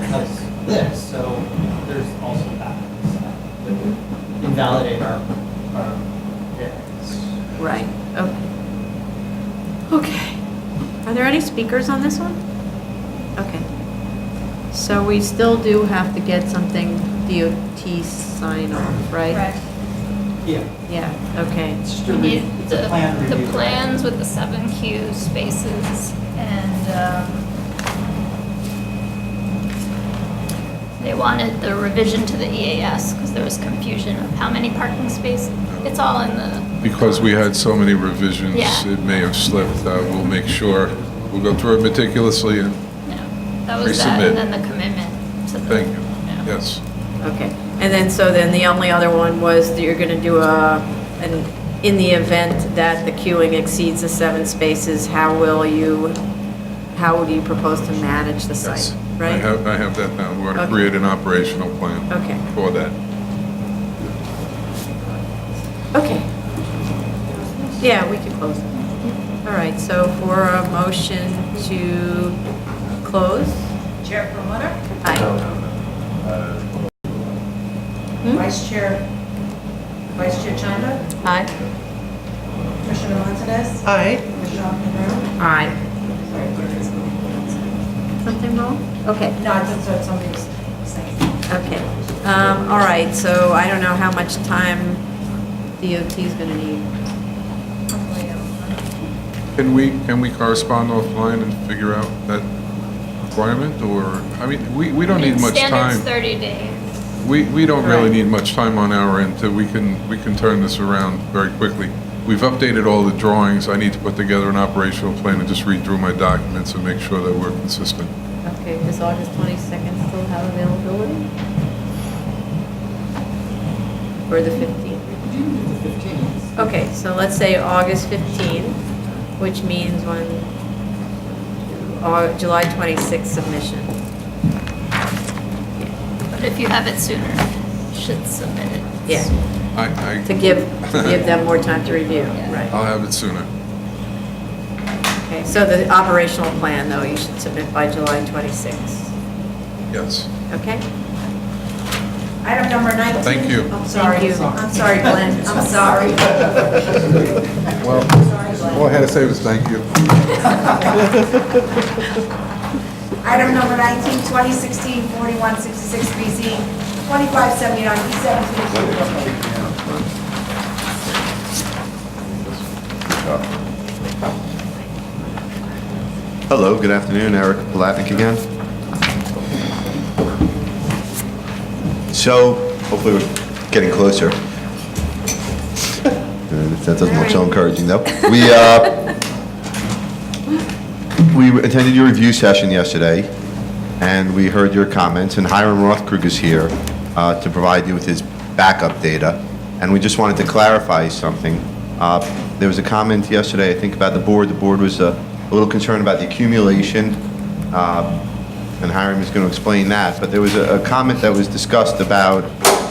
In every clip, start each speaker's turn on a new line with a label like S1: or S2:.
S1: because this, so there's also that that would invalidate our, our variance.
S2: Right, okay. Okay. Are there any speakers on this one? Okay. So we still do have to get something DOT sign off, right?
S3: Correct.
S1: Yeah,
S2: Yeah, okay.
S1: it's just a
S3: We
S1: re-
S3: need
S1: it's
S3: the,
S1: a plan review.
S3: the plans with the seven queue spaces and, um, they wanted the revision to the E EAS because there was confusion of how many parking spaces. It's all in the,
S4: Because we had so many revisions,
S3: Yeah.
S4: it may have slipped. Uh, We'll make sure, we'll go through it meticulously and
S3: no, that was that.
S4: Resubmit.
S3: And then the commitment to the.
S4: thank you.
S3: yeah.
S4: Yes.
S2: Okay, and then, so then the only other one was that you're gonna do a, an, in the event that the queuing exceeds the seven spaces, how will you, how do you propose to manage the
S4: Yes.
S2: site?
S4: I
S2: Right?
S4: have, I have that now. We're going to
S2: Okay.
S4: create an operational plan
S2: Okay,
S4: for that.
S2: okay. Yeah, we can close. All right, so for a motion to close?
S5: Chair Promoter,
S2: Aye. Hmm?
S5: Vice Chair, Vice Chair Chanda,
S2: Aye.
S5: Commissioner Montanez,
S6: Aye.
S5: Commissioner Montanaro.
S2: Aye.
S5: Sorry, there is no-
S2: Something wrong? Okay.
S5: No, I just thought somebody was saying.
S2: Okay, um, all right, so I don't know how much time DOT's gonna need.
S3: Hopefully, um,
S4: Can we, can we correspond offline and figure out that requirement? Or, I mean, we, we don't
S3: I mean,
S4: need much
S3: Standard's
S4: time.
S3: 30 days.
S4: We, we don't really
S2: Right.
S4: need much time on our end. to- We can, we can turn this around very quickly. We've updated all the drawings. I need to put together an operational plan and just read through my documents and make sure that we're consistent.
S2: Okay, does August twenty-second still have availability? Or the fifteenth?
S1: The 15th.
S2: Okay, so let's say August fifteenth, which means when, Au- July twenty-sixth submission.
S3: But if you have it sooner, you should submit it.
S2: Yeah,
S4: I, I.
S2: to give, to give them more time to review, right.
S4: I'll have it sooner.
S2: Okay, so the operational plan, though, you should submit by July twenty-sixth,
S4: Yes.
S2: okay?
S5: Item number 19.
S4: Thank you.
S5: I'm sorry,
S2: Thank you.
S5: I'm sorry, Glenn, I'm sorry.
S4: Well, all I had to say was thank you.
S5: Item number 19, 2016, 4166 BZ, 2579 E17.
S7: Hello, good afternoon, Eric Palatnik again. So, hopefully we're getting closer. Uh, That doesn't look so encouraging, though. We, uh, we attended your review session yesterday, and we heard your comments, and Hiram Rothkrug is here uh, to provide you with his backup data, and we just wanted to clarify something. Uh, There was a comment yesterday, I think, about the board, the board was uh, a little concerned about the accumulation, uh, and Hiram is going to explain that, but there was a a comment that was discussed about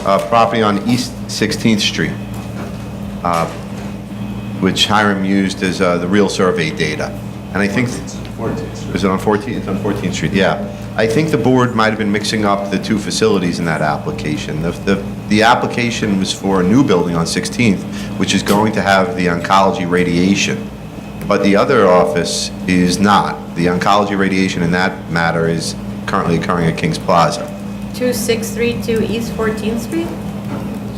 S7: uh, property on East 16th Street, uh, which Hiram used as uh, the real survey data, and I think... Is it on 14th? It's on 14th Street, yeah. I think the board might have been mixing up the two facilities in that application. The- The the application was for a new building on 16th, which is going to have the oncology radiation, but the other office is not. The oncology radiation in that matter is currently occurring at Kings Plaza.
S2: 2632 East 14th Street?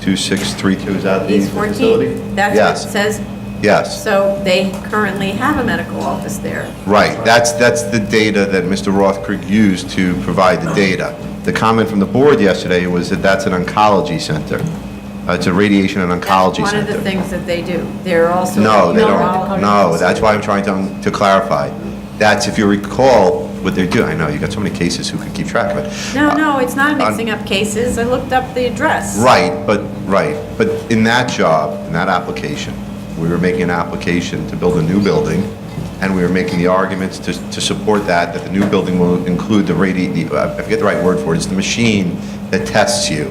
S7: 2632, is that the
S2: East
S7: Uh, facility?
S2: 14th? That's what it says.
S7: Yes, yes.
S2: So they currently have a medical office there.
S7: Right, that's, that's the data that Mr. Rothkrug used to provide the data. The comment from the board yesterday was that that's an oncology center. Uh, It's a radiation and oncology
S2: One of the
S7: center.
S2: things that they do. They're also.
S7: No, they
S2: Neurological-
S7: don't, no, that's why I'm trying to, to clarify. That's, if you recall, what they're doing, I know, you got so many cases, who could keep track of it?
S2: No, no, it's not mixing up cases. I looked up the address.
S7: Right, but, right, but in that job, in that application, we were making an application to build a new building, and we were making the arguments to, to support that, that the new building will include the radi, the, uh, I forget the right word for it, it's the machine that tests you,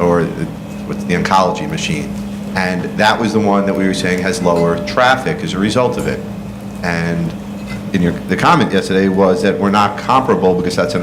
S7: or the- what's the oncology machine. And that was the one that we were saying has lower traffic as a result of it. And in your, the comment yesterday was that we're not comparable because that's an